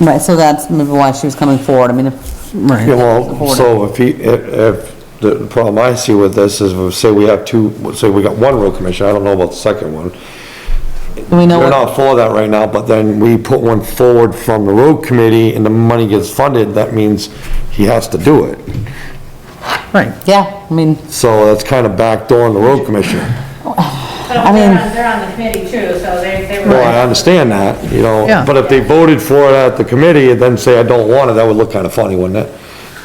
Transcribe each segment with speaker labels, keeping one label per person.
Speaker 1: Right, so that's maybe why she was coming forward, I mean, if, right.
Speaker 2: Yeah, well, so if he, if, if, the problem I see with this is, if, say we have two, say we got one road commissioner, I don't know about the second one.
Speaker 1: Do we know
Speaker 2: They're
Speaker 1: what,
Speaker 2: not for that right now, but then we put one forward from the road committee and the money gets funded, that means he has to do it.
Speaker 3: Right.
Speaker 1: yeah, I mean,
Speaker 2: So that's kind of backdooring the road commissioner.
Speaker 1: I
Speaker 4: But
Speaker 1: mean-
Speaker 4: they're on, they're on the committee too, so they, they were.
Speaker 2: Well, I understand that, you know,
Speaker 3: Yeah.
Speaker 2: but if they voted for it at the committee and then say, I don't want it, that would look kind of funny, wouldn't it?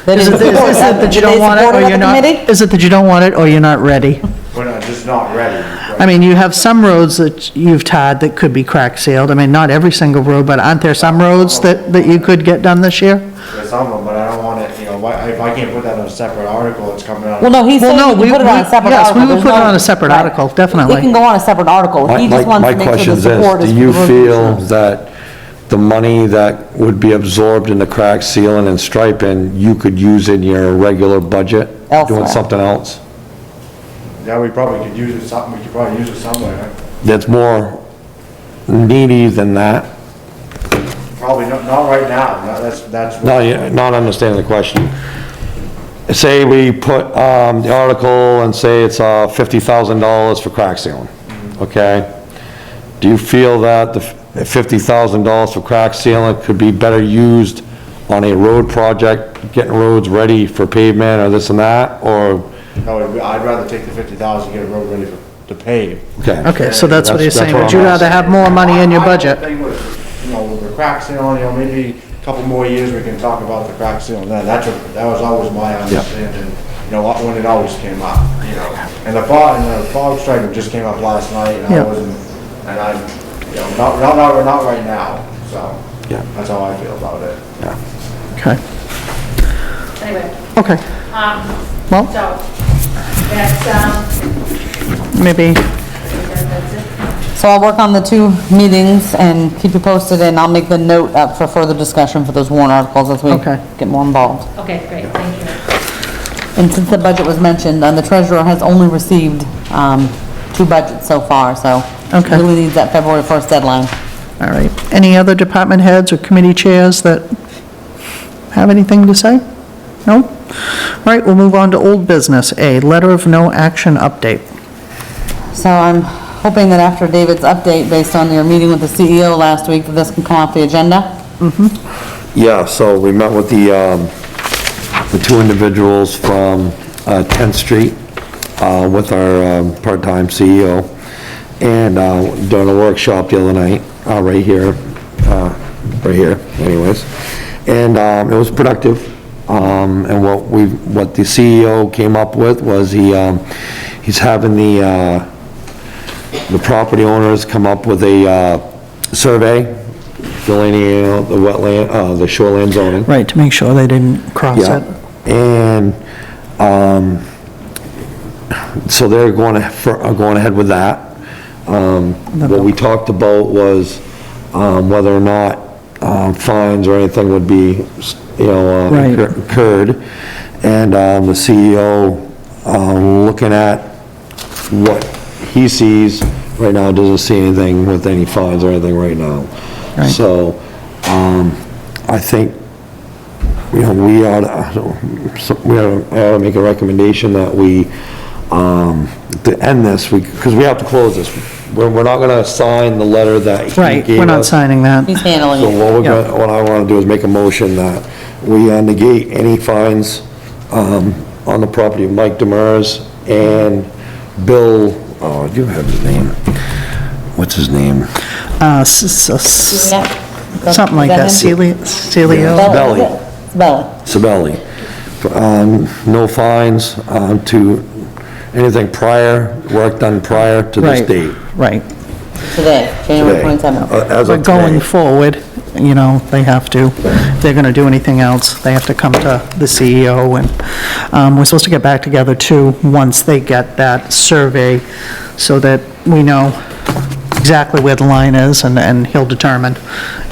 Speaker 1: they
Speaker 3: Is it,
Speaker 1: didn't
Speaker 3: is it
Speaker 1: support it.
Speaker 3: that you
Speaker 1: Did they
Speaker 3: don't want it
Speaker 1: support
Speaker 3: or
Speaker 1: at the
Speaker 3: you're not,
Speaker 1: committee?
Speaker 3: is it that you don't want it or you're not ready?
Speaker 5: We're not, just not ready. right?
Speaker 3: I mean, you have some roads that you've tied that could be crack sealed. I mean, not every single road, but aren't there some roads that, that you could get done this year?
Speaker 5: There's some of them, but I don't want it, you know, why- if I can't put that on a separate article, it's coming out.
Speaker 1: Well, no, he's
Speaker 3: Well,
Speaker 1: saying
Speaker 3: no,
Speaker 1: we
Speaker 3: we-
Speaker 1: can put it on a
Speaker 3: we-
Speaker 1: separate
Speaker 3: yes,
Speaker 1: article.
Speaker 3: we would
Speaker 1: There's
Speaker 3: put it
Speaker 1: no-
Speaker 3: on a separate
Speaker 1: right.
Speaker 3: article, definitely.
Speaker 1: It can go on a separate article,
Speaker 2: My-
Speaker 1: he just
Speaker 2: my-
Speaker 1: wants
Speaker 2: My
Speaker 1: to make sure
Speaker 2: question
Speaker 1: the
Speaker 2: is this:
Speaker 1: support is.
Speaker 2: Do you
Speaker 1: for the road
Speaker 2: feel
Speaker 1: commissioner.
Speaker 2: that the money that would be absorbed in the crack sealing and striping, you could use in your regular budget?
Speaker 1: Elsewhere.
Speaker 2: Doing something else?
Speaker 5: Yeah, we probably could use it some, we could probably use it somewhere.
Speaker 2: That's more needy than that?
Speaker 5: Probably not, not right now, No, that's, that's.
Speaker 2: No, you're not understanding the question. Say we put, um, the article and say it's, uh, fifty thousand dollars for crack sealing, okay? Do you feel that the fifty thousand dollars for crack sealing could be better used on a road project, getting roads ready for pavement or this and that, or?
Speaker 5: No, I'd I'd rather take the fifty thousand, get a road ready for- to pave.
Speaker 3: Okay, so that's what he's
Speaker 2: That's- that's
Speaker 3: saying.
Speaker 2: what
Speaker 3: Would you
Speaker 2: I'm
Speaker 3: rather have more money in your
Speaker 5: I- I
Speaker 3: budget?
Speaker 5: think with, You know, with the crack ceiling, you know, maybe a couple more years, we can talk about the crack ceiling, then, that's, what- that was always my understanding, you know, when it always came up, you know, and the fog, and the fog striker just came up last night, and
Speaker 3: Yeah.
Speaker 5: I wasn't, and I, you know, not, not, not, not right now, so.
Speaker 2: Yeah.
Speaker 5: That's how I feel about it.
Speaker 3: Okay,
Speaker 4: Anyway,
Speaker 3: okay.
Speaker 4: um,
Speaker 3: Well,
Speaker 4: so, that's, um,
Speaker 3: maybe,
Speaker 4: that's it.
Speaker 1: So I'll work on the two meetings and keep you posted, and I'll make the note up for further discussion for those warrant articles as we
Speaker 3: Okay.
Speaker 1: get more involved.
Speaker 4: Okay, great, thank you.
Speaker 1: And since the budget was mentioned, uh, the treasurer has only received um, two budgets so far, so
Speaker 3: Okay.
Speaker 1: really needs that February 1st deadline.
Speaker 3: all right. Any other department heads or committee chairs that have anything to say? No? All right, we'll move on to old business, A, letter of no action update.
Speaker 1: So I'm hoping that after David's update, based on your meeting with the CEO last week, that this can come off the agenda.
Speaker 2: Yeah, so we met with the, um, the two individuals from, uh, 10th Street, uh, with our, um, part-time CEO, and, uh, doing a workshop the other night, uh, right here, uh, right here anyways. And, um, it was productive, um, and what we, what the CEO came up with was he, um, he's having the, uh, the property owners come up with a uh, survey delineating out the wetland, uh, the shoreline zoning.
Speaker 3: Right, to make sure they didn't cross
Speaker 2: Yeah.
Speaker 3: it.
Speaker 2: And, um, so they're going, for- are going ahead with that. Um, What we talked about was um, whether or not um, fines or anything would be, you know, uh,
Speaker 3: Right.
Speaker 2: incur- occurred, and um, the CEO um, looking at what he sees right now, doesn't see anything with any fines or anything right now.
Speaker 3: Right.
Speaker 2: So um, I think, you know, we ought to, so- we ought to- I ought to make a recommendation that we, um, to end this, because we have to close this. We're we're not going to sign the letter that he gave us.
Speaker 3: Right, we're not signing that.
Speaker 1: He's handling
Speaker 2: So
Speaker 1: it.
Speaker 2: what we're
Speaker 3: Yeah.
Speaker 2: gonna, what I wanna do is make a motion that we uh, negate any fines, um, on the property of Mike Demers and Bill, oh, I do have his name. What's his name?
Speaker 3: Uh, s- s- s-
Speaker 1: Yeah.
Speaker 3: Something like that,
Speaker 1: Is him?
Speaker 3: Celia, Celio,
Speaker 2: Belly.
Speaker 1: Belly. Belly.
Speaker 2: Sabelli. Um, no fines, um, to anything prior, work done prior to this
Speaker 3: right,
Speaker 2: date.
Speaker 3: right.
Speaker 1: Today, January
Speaker 2: today,
Speaker 1: 27th.
Speaker 2: uh, As
Speaker 3: But
Speaker 2: of
Speaker 3: going
Speaker 2: today.
Speaker 3: forward, you know, they have to, if they're gonna do anything else, they have to come to the CEO, and, um, we're supposed to get back together too, once they get that survey, so that we know exactly where the line is, and, and he'll determine,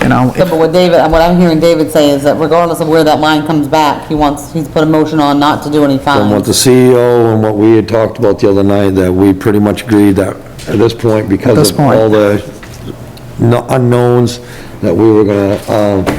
Speaker 3: you know,
Speaker 1: So,
Speaker 3: if
Speaker 1: But what David, what I'm hearing David say is that regardless of where that line comes back, he wants, he's put a motion on not to do any
Speaker 2: And what
Speaker 1: fines.
Speaker 2: the CEO and what we had talked about the other night, that we pretty much agreed that at this point,
Speaker 3: At
Speaker 2: because
Speaker 3: this
Speaker 2: of
Speaker 3: point.
Speaker 2: all the kno- unknowns, that we were gonna, um,